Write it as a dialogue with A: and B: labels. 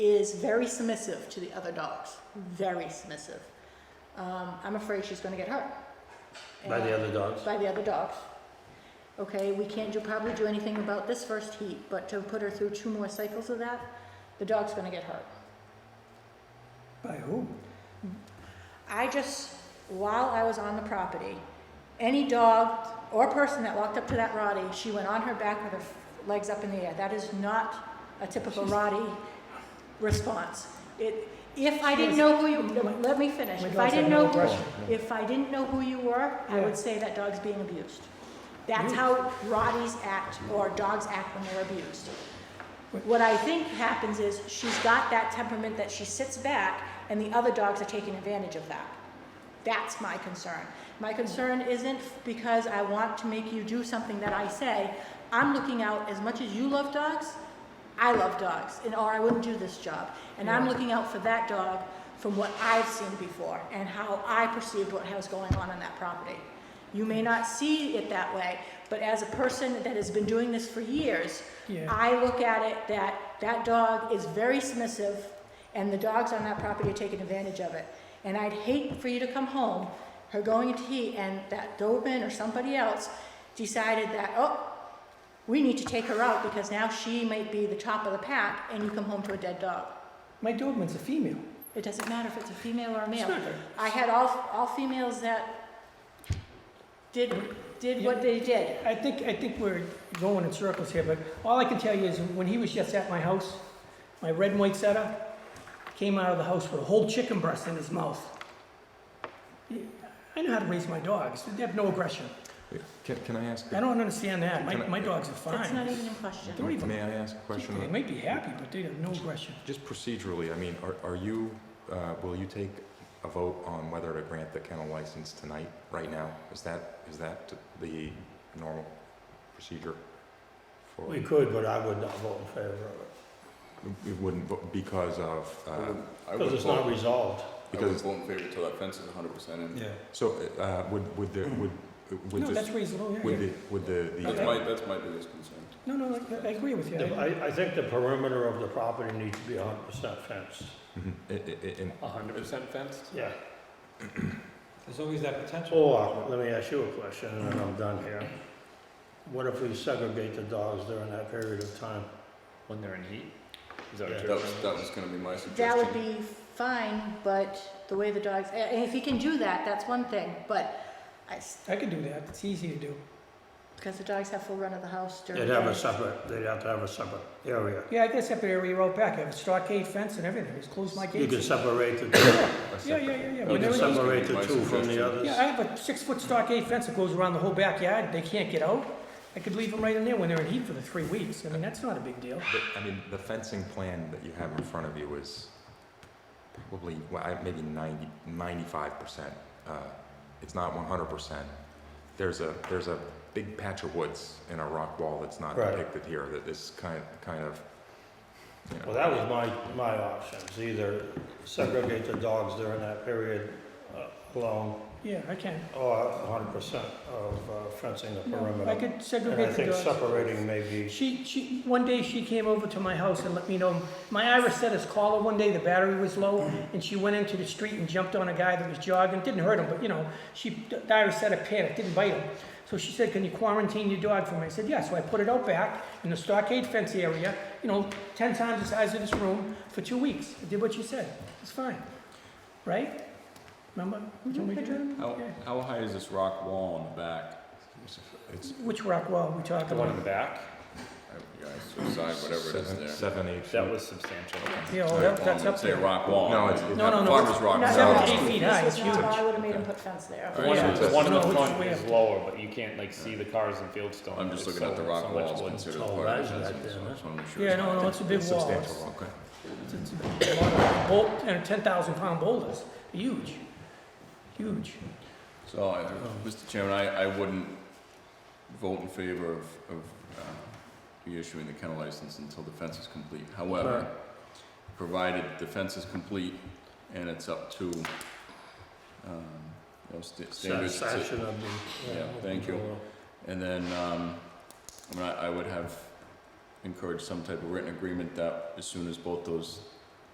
A: is very submissive to the other dogs, very submissive. Um, I'm afraid she's gonna get hurt.
B: By the
A: And-
B: other dogs?
A: By the other dogs. Okay, we can't do, probably do anything about this first heat, but to put her through two more cycles of that, the dog's gonna get hurt.
C: By whom?
A: I just, while I was on the property, any dog or person that walked up to that Rottie, she went on her back with her f- legs up in the air. That is not a typical Rottie response. It, if I didn't know who you, no, let me finish.
C: My
A: If I
C: dogs have
A: didn't
C: no
A: know,
C: aggression.
A: who- if I didn't know who you were, I
C: Yeah.
A: would say that dog's being abused. That's how Rotties act or dogs act when they're abused. What I think happens is she's got that temperament that she sits back and the other dogs are taking advantage of that. That's my concern. My concern isn't because I want to make you do something that I say. I'm looking out, as much as you love dogs, I love dogs, and or I wouldn't do this job. And I'm looking out for that dog from what I've seen before and how I perceived what was going on on that property. You may not see it that way, but as a person that has been doing this for years,
C: Yeah.
A: I look at it that that dog is very submissive, and the dogs on that property are taking advantage of it. And I'd hate for you to come home, her going into heat, and that Doberman or somebody else decided that, oh, we need to take her out because now she might be the top of the pack, and you come home to a dead dog.
C: My Doberman's a female.
A: It doesn't matter if it's a female or a
C: It's
A: male.
C: not her.
A: I had all, all females that did, did what they did.
C: I think, I think we're going in circles here, but all I can tell you is when he was just at my house, my red and white setter came out of the house with a whole chicken breast in his mouth. I know how to raise my dogs. They have no aggression.
D: Can, can I ask,
C: I
D: a-
C: don't understand that. My,
D: Can I-
C: my dogs are
A: That's not
C: fine.
A: even in question.
C: Don't even,
D: may I ask a
C: they
D: question?
C: might be happy, but they have no aggression.
D: Just procedurally, I mean, are, are you, uh, will you take a vote on whether to grant the kennel license tonight, right now? Is that, is that the normal procedure? for-
B: We could, but I would not vote in favor of
D: We wouldn't, vo- because of,
E: I
D: uh,
E: would, I
B: it,
E: would
B: because it's not
E: vote,
B: resolved.
E: I would
D: because,
E: vote in favor till that fence is hundred percent in.
B: Yeah.
D: so, uh, would, would the, would, would
C: No, that's
D: the,
C: reasonable, yeah,
D: would
C: yeah.
D: the, would the,
E: That's
D: the,
E: my,
D: uh,
E: that's my biggest concern.
C: No, no, I, I agree with you.
B: The-
C: I-
B: I, I think the perimeter of the property needs to be hundred percent fenced.
D: mhm, i- i- i- in-
E: hundred percent fenced?
B: Yeah.
F: There's always that potential.
B: Or, let me ask you a question, and then I'm done here. What if we segregate the dogs during that period of time?
F: When they're in heat? Is
B: that what
E: That was, that was gonna be my suggestion.
A: That would be fine, but the way the dogs, and if you can do that, that's one thing, but I s
C: I could do that. It's easy to do.
A: because the dogs have full run of the house during.
B: They'd have
A: the
B: a
A: day.
B: separate, they'd have to have a separate area.
C: Yeah, I guess that area out back, I have a stockade fence and everything, just close my
B: You
C: gates.
B: can separate the two,
C: Yeah, yeah, yeah, yeah.
E: You
B: you can
C: Whenever
E: can
C: those-
B: separate the
E: My
B: two from
E: suggestion.
B: the others.
C: Yeah, I have a six-foot stockade fence that goes around the whole backyard, they can't get out. I could leave them right in there when they're in heat for the three weeks, I mean, that's not a big deal.
D: the- I mean, the fencing plan that you have in front of you is probably, well, I- maybe 90, 95%. uh, It's not 100%. There's a, there's a big patch of woods and a rock wall that's not
B: Right.
D: depicted here that is kind, kind of, you know.
B: Well, that was my, my options, either segregate the dogs during that period uh, alone,
C: Yeah, I can.
B: or hundred percent of uh, fencing the
C: No, I
B: perimeter.
C: could
B: And I
C: segregate the
B: think
C: dogs.
B: separating maybe,
C: She, she, one day she came over to my house and let me know, my Irish set his collar one day, the battery was low, and she went into the street and jumped on a guy that was jogging, didn't hurt him, but you know, she, the Irish setter panicked, didn't bite him. So she said, can you quarantine your dog for me? I said, yeah, so I put it out back in the stockade fence area, you know, ten times the size of this room, for two weeks. I did what she said, it's fine, right? Remember? Can we do that?
E: How,
C: Yeah.
E: how high is this rock wall in the back?
D: It's
C: Which rock wall we talking about?
F: the back?
E: I- Yeah, it's the side, whatever it
D: seven-
E: is there. um,
D: Seven, eight
F: That
D: feet.
F: was substantial.
C: Yeah, well, that- that's up
E: Say
C: there.
E: rock wall.
D: No, it's- it's
C: No, no, no.
E: Farmer's rock.
C: Not
E: wall.
C: seven,
A: No,
C: eight feet high,
A: this
C: it's
A: is not-
C: huge.
A: I would have made him put fence there.
E: All
F: One
E: right,
F: of
E: so
F: the, one of
C: No,
F: the
C: which
F: front
C: way
F: is
C: up?
F: lower, but you can't like see the cars in Fieldstone.
E: I'm just
F: It's
E: looking at
F: so-
E: the rock
F: so much
E: wall,
F: wood.
E: it's considered
B: Oh,
E: part
B: that's
E: of the fencing,
B: right
E: so
B: there,
E: I just wanna make sure
C: Yeah,
E: it's
C: no,
E: not-
C: no, it's a big wall.
D: Substantial
C: It's-
D: rock.
C: It's, it's a lot of bolt, and ten thousand pound boulders, huge, huge.
E: So, I- Mr. Chairman, I, I wouldn't vote in favor of, of uh, reissuing the kennel license until the fence is complete. However, provided the fence is complete and it's up to, um, those sta- standards. to-
B: satisfaction of the. uh,
E: Yeah, thank you. And then, um, I mean, I, I would have encouraged some type of written agreement that as soon as both those